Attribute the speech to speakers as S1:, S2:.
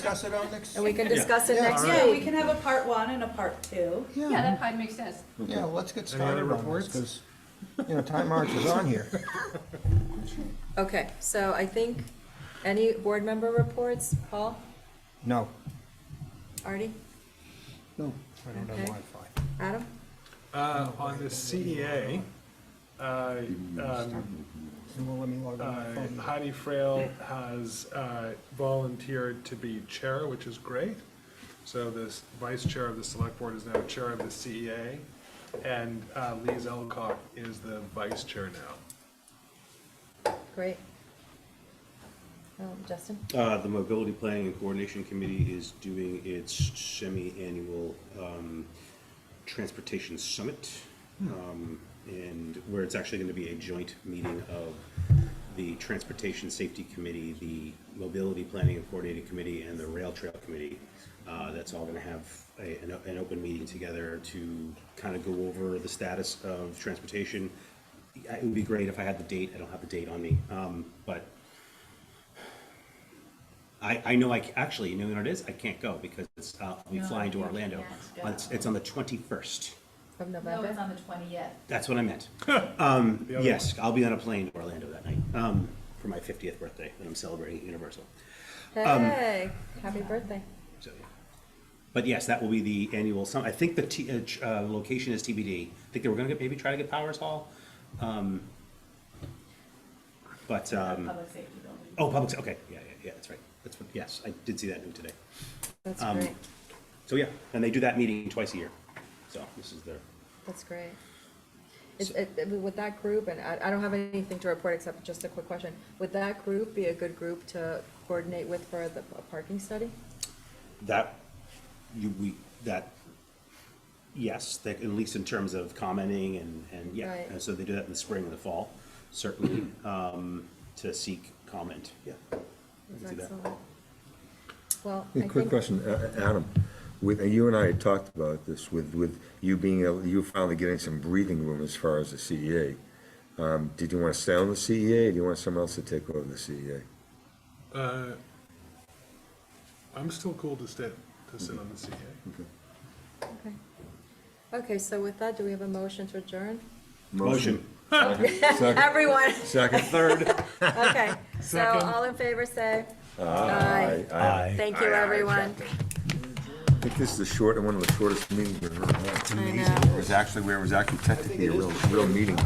S1: Discuss it on next.
S2: And we can discuss it
S1: Yeah.
S2: next
S1: Yeah,
S3: Yeah, we
S2: week.
S3: can have a part one and a part two.
S4: Yeah,
S1: Yeah,
S4: that probably makes sense.
S1: yeah, let's get
S5: Any other
S1: started on this,
S5: reports?
S1: because, you know, time marches on here.
S2: Okay, so I think, any board member reports? Paul,
S1: No,
S2: Artie,
S1: no, I don't have
S2: Okay.
S1: Wi-Fi.
S2: Adam?
S5: Uh, on the CEA, uh, um,
S1: It won't let me log on my
S5: uh,
S1: phone.
S5: Heidi Frail has, uh, volunteered to be chair, which is great. So this vice chair of the select board is now chair of the CEA, and, uh, Lee Elcock is the vice chair now.
S2: Great. Um, Justin?
S6: Uh, the Mobility Planning and Coordination Committee is doing its semi-annual, um, Transportation Summit. Um, and where it's actually gonna be a joint meeting of the Transportation Safety Committee, the Mobility Planning and Coordinating Committee, and the Rail Trail Committee. Uh, that's all gonna have a, an, an open meeting together to kind of go over the status of transportation. It would be great if I had the date, I don't have the date on me, um, but I, I know I, ca- actually, you know what it is? I can't go because it's, uh, I'll be
S3: No,
S6: flying to
S3: you
S6: Orlando.
S3: can't go.
S6: Uh, It's, it's on the twenty-first.
S2: Of
S4: No, it's
S2: November?
S4: on the twentieth.
S6: That's what I meant. Um,
S5: The other
S6: Yes, I'll be on a plane to Orlando that night, um, for my fiftieth birthday that I'm celebrating at Universal.
S2: Hey, happy birthday.
S6: So, yeah. But yes, that will be the annual summit. I think the T, uh, ch- uh, location is TBD. I think they were gonna get, maybe try to get Powers Hall. Um, But, um,
S4: Public safety building.
S6: oh, public, okay, yeah, yeah, yeah, that's right. That's what, yes, I did see that new today.
S2: That's
S6: Um,
S2: great.
S6: So, yeah, and they do that meeting twice a year. So this is their
S2: That's great. It's, it, it- with that group, and I, I don't have anything to report except just a quick question. Would that group be a good group to coordinate with for the p- parking study?
S6: That, you, we, that, yes, that, at least in terms of commenting and, and, yeah.
S2: Right.
S6: And so they do that in the spring and the fall, certainly, um, to seek comment, yeah. we can do that.
S2: Excellent. Well, I
S7: Yeah,
S2: think.
S7: Quick question, uh, uh, Adam, with, you and I had talked about this, with, with you being, able- you finally getting some breathing room as far as the CEA. Um, Did you want to stay on the CEA, or do you want someone else to take over the E CEA?
S5: Uh, I'm still cool to sit, to sit on the E CEA.
S2: Okay. Okay, so with that, do we have a motion to adjourn?
S6: Motion.
S7: Second,
S2: Everyone,
S7: second, third.
S2: okay. So all in favor, say aye.
S7: I
S2: Thank you, everyone.
S7: think this is the short, one of the shortest meetings we've ever had.
S2: I know.
S7: It was actually, where it was actually technically a real, real meeting.